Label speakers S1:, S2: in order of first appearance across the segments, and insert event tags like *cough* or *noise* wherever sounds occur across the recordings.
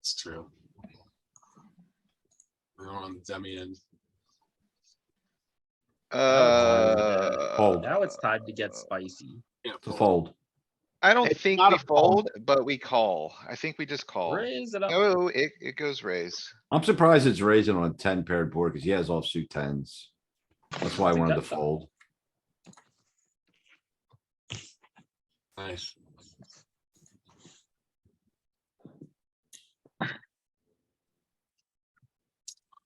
S1: It's true. We're on the dummy end.
S2: Fold.
S3: Uh,
S4: Now it's time to get spicy.
S1: Yeah,
S2: to
S1: fold.
S2: fold.
S3: I don't
S4: It's
S3: think
S4: not
S3: we
S4: a
S3: fold, but we call. I think we just call.
S4: Raise it up.
S3: No, it, it goes raise.
S2: I'm surprised it's raising on a ten paired board because he has offsuit tens. That's why I
S4: Think
S2: wanted to
S4: that's a-
S2: fold.
S1: Nice. *laughs*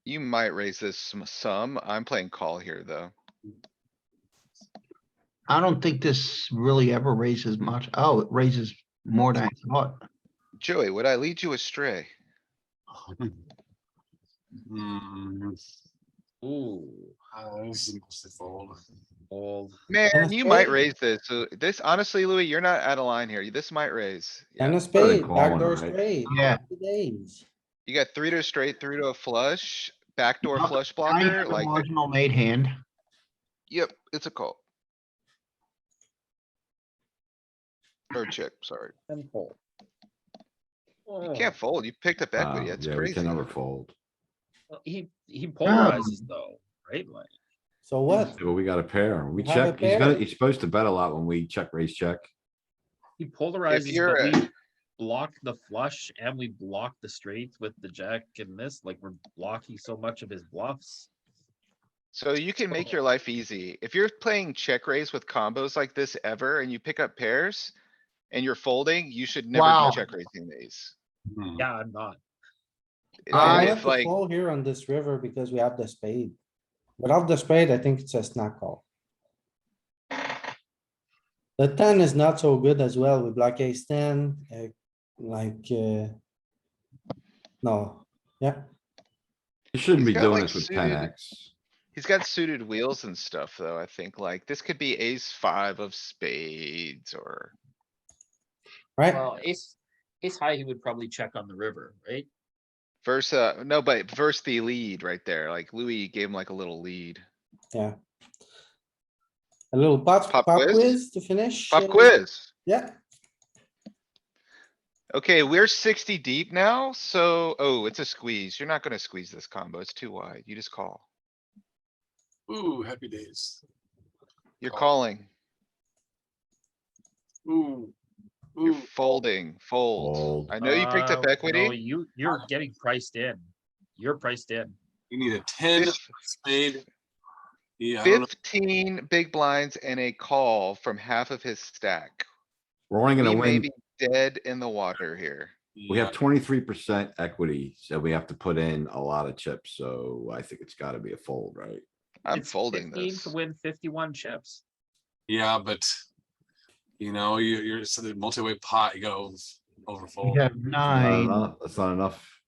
S3: You might raise this some, some. I'm playing call here, though.
S5: I don't think this really ever raises much. Oh, it raises more than I thought.
S3: Joey, would I lead you astray?
S1: Hmm,
S4: Ooh,
S1: uh, this is mostly fold.
S4: old.
S3: Man, you might raise this. So this, honestly, Louis, you're not out of line here. This might raise. Yeah.
S6: And a spade,
S2: call
S6: backdoor
S2: one, right?
S6: spade.
S5: Yeah.
S6: happy Days.
S3: You got three to a straight, three to a flush, backdoor
S5: Not-
S3: flush
S5: I
S3: blocker,
S5: have a
S3: like,
S5: marginal made hand.
S3: yep, it's a call. Or check, sorry.
S4: And fold.
S3: You can't fold. You picked up
S2: Oh. Wow,
S3: equity. That's
S2: Uh, Yeah, we
S3: crazy.
S2: can never fold.
S4: Oh, He, he polarizes though, right? Like,
S6: So what?
S2: But we got a pair. We
S6: We have a
S2: check, he's gonna,
S6: pair.
S2: he's supposed to bet a lot when we check, raise, check.
S4: he polarizes,
S3: you're
S4: but
S3: a-
S4: we block the flush and we block the straight with the jack and this, like we're blocking so much of his bluffs.
S3: So you can make your life easy. If you're playing check raise with combos like this ever and you pick up pairs and you're folding, you should never
S5: Wow.
S3: be check raising these.
S1: Hmm,
S4: Yeah, I'm not.
S3: It-
S5: I-
S6: I
S3: It's
S6: have to
S3: like,
S6: call here on this river because we have the spade. Without the spade, I think it's a snap call. The ten is not so good as well. We block ace ten, uh, like, uh. No, yeah,
S2: You shouldn't
S3: He's
S2: be
S3: got,
S2: doing
S3: like,
S2: this with
S3: suited-
S2: ten X.
S3: he's got suited wheels and stuff though, I think. Like, this could be ace five of spades or,
S6: right?
S4: Well, ace, ace high, he would probably check on the river, right?
S3: versa, no, but versus the lead right there. Like Louis gave him like a little lead.
S6: A little pop,
S3: Pop
S6: pop
S3: quiz?
S6: quiz to finish.
S3: Pop
S6: uh,
S3: quiz.
S6: Yeah,
S3: Okay, we're sixty deep now, so, oh, it's a squeeze. You're not gonna squeeze this combo. It's too wide. You just call.
S1: Ooh, happy days.
S3: You're
S1: Call.
S3: calling.
S1: Ooh.
S3: You're
S1: Ooh,
S3: folding, fold.
S2: Fold.
S3: I know you picked
S4: Uh,
S3: up
S4: no,
S3: equity.
S4: You, you're getting priced in. You're priced in.
S1: you need a ten
S3: Fif-
S1: spade. Yeah, I don't know.
S3: Fifteen big blinds and a call from half of his stack.
S2: We're only
S3: He
S2: gonna
S3: may
S2: win,
S3: be dead in the water here.
S2: we
S1: Yeah,
S2: have twenty-three percent equity, so we have to put in a lot of chips, so I think it's gotta be a fold, right?
S3: I'm
S4: It's
S3: folding
S4: 15
S3: this.
S4: To win fifty-one chips.
S1: Yeah, but. You know, you, you're, so the multi-way pot, you go
S5: You
S1: overfold.
S5: have
S2: Not
S5: nine.
S2: enough- That's not enough,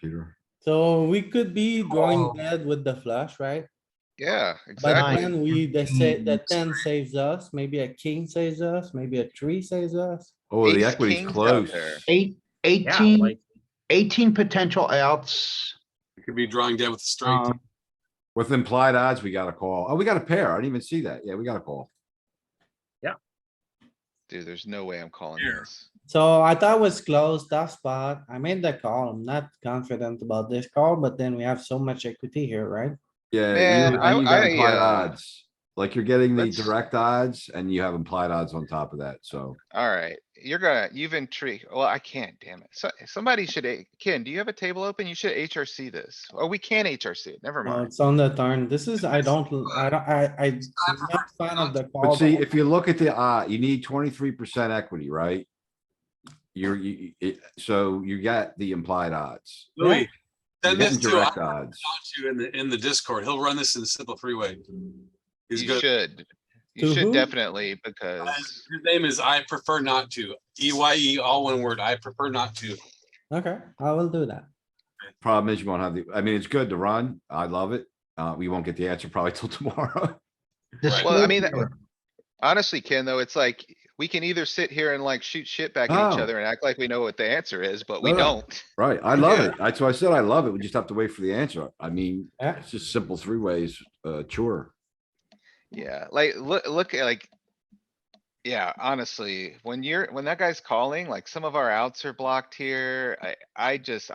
S2: Peter.
S6: so we could be
S1: Oh.
S6: drawing dead with the flush, right?
S3: Yeah,
S6: But
S3: exactly.
S6: then we, they say the
S1: Mm.
S6: ten saves us, maybe a king saves us, maybe a three saves us.
S2: Oh, the
S3: Ace
S2: equity's
S3: king's out
S2: close.
S3: there.
S5: Eight,
S4: Yeah,
S5: eighteen,
S4: like,
S5: eighteen potential outs.
S1: You could be drawing dead with a straight.
S5: Um,
S2: With implied odds, we got a call. Oh, we got a pair. I didn't even see that. Yeah, we got a call.
S3: Dude, there's no way I'm calling
S1: Here.
S3: this.
S6: So I thought it was close, tough spot. I made the call. I'm not confident about this call, but then we have so much equity here, right?
S2: Yeah,
S3: Man,
S2: you-
S3: I-
S2: and you got
S3: I,
S2: implied
S3: uh,
S2: odds. Like you're getting the
S3: let's-
S2: direct odds and you have implied odds on top of that, so.
S3: Alright, you're gonna, you've intrigued. Well, I can't, damn it. So, somebody should, a- Ken, do you have a table open? You should HRC this. Oh, we can HRC it. Never
S6: No,
S3: mind.
S6: it's on the turn. This is, I don't, I don't, I, I, I'm not fan of the call.
S2: But see,
S6: though.
S2: if you look at the, uh, you need twenty-three percent equity, right? You're, you, you- it, so you got the implied odds.
S1: Louis,
S2: You're
S1: send this
S2: getting
S1: to, I
S2: direct
S1: taught
S2: odds.
S1: you in the, in the Discord. He'll run this in a simple three-way. He's
S3: You
S1: good.
S3: should.
S6: To
S3: You should
S6: who?
S3: definitely because.
S1: His name is I prefer not to. E Y E, all one word. I prefer not to.
S6: Okay, I will do that.
S2: Problem is you won't have the, I mean, it's good to run. I love it. Uh, we won't get the answer probably *laughs* till tomorrow.
S5: the
S1: Right.
S3: Well, I
S5: spade
S3: mean,
S5: here.
S3: Honestly, Ken, though, it's like, we can either sit here and like shoot shit back at each
S2: Oh.
S3: other and act like we know what the answer is, but we
S2: No, no.
S3: don't.
S2: Right, I love
S3: Yeah.
S2: it. That's why I said I love it. We just have to wait for the answer. I mean,
S6: Yeah,
S2: it's just simple three ways, uh, chore.
S3: Yeah, like, look, look, at, like. Yeah, honestly, when you're, when that guy's calling, like some of our outs are blocked here, I, I just,